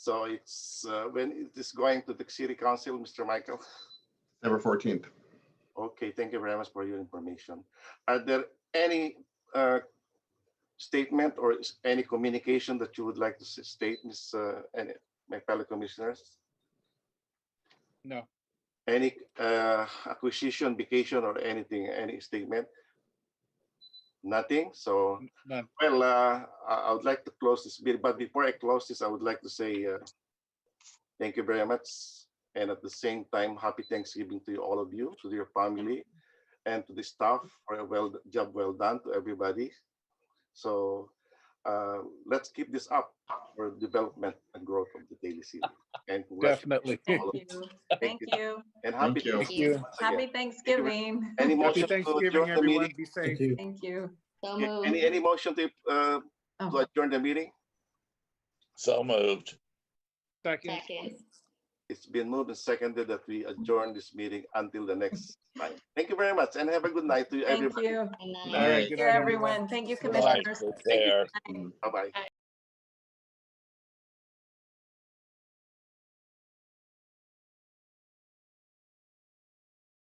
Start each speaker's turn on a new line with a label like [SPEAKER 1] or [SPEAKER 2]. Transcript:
[SPEAKER 1] So it's, uh, when it is going to the city council, Mr. Michael?
[SPEAKER 2] December fourteenth.
[SPEAKER 1] Okay, thank you very much for your information. Are there any uh, statement or is any communication that you would like to s- state, Ms., uh, and my fellow commissioners?
[SPEAKER 3] No,
[SPEAKER 1] Any uh, acquisition, vacation, or anything, any statement? Nothing, so
[SPEAKER 3] n- none.
[SPEAKER 1] Well, uh, I I would like to close this bit, but before I close this, I would like to say uh, thank you very much. And at the same time, happy Thanksgiving to you, all of you, to your family, and to the staff for a well job well done to everybody. So uh, let's keep this up for development and growth of the daily city. And congratulations
[SPEAKER 3] Definitely.
[SPEAKER 1] to all of you.
[SPEAKER 4] Thank you. Thank you.
[SPEAKER 1] and happy
[SPEAKER 2] Thank you.
[SPEAKER 4] Thank
[SPEAKER 1] Thanksgiving
[SPEAKER 3] you.
[SPEAKER 4] you.
[SPEAKER 1] once again. Any motion to
[SPEAKER 3] Happy
[SPEAKER 4] Happy Thanksgiving.
[SPEAKER 3] Thanksgiving,
[SPEAKER 1] adjourn the
[SPEAKER 3] everyone.
[SPEAKER 1] meeting?
[SPEAKER 3] Be safe.
[SPEAKER 4] Thank you.
[SPEAKER 5] So
[SPEAKER 1] Okay,
[SPEAKER 5] moved.
[SPEAKER 1] Any, any motion to uh, to
[SPEAKER 4] Oh.
[SPEAKER 1] adjourn the meeting?
[SPEAKER 6] So moved.
[SPEAKER 3] Second.
[SPEAKER 5] Second.
[SPEAKER 1] It's been moved and seconded that we adjourn this meeting until the next time. Thank you very much and have a good night to
[SPEAKER 4] Thank
[SPEAKER 1] everybody.
[SPEAKER 4] you.
[SPEAKER 5] And
[SPEAKER 2] Good
[SPEAKER 5] then-
[SPEAKER 2] night.
[SPEAKER 3] All right,
[SPEAKER 4] Thank
[SPEAKER 3] good
[SPEAKER 4] you,
[SPEAKER 3] night,
[SPEAKER 4] everyone. Thank you,
[SPEAKER 6] Right
[SPEAKER 4] commissioners.
[SPEAKER 6] there.
[SPEAKER 1] Bye-bye.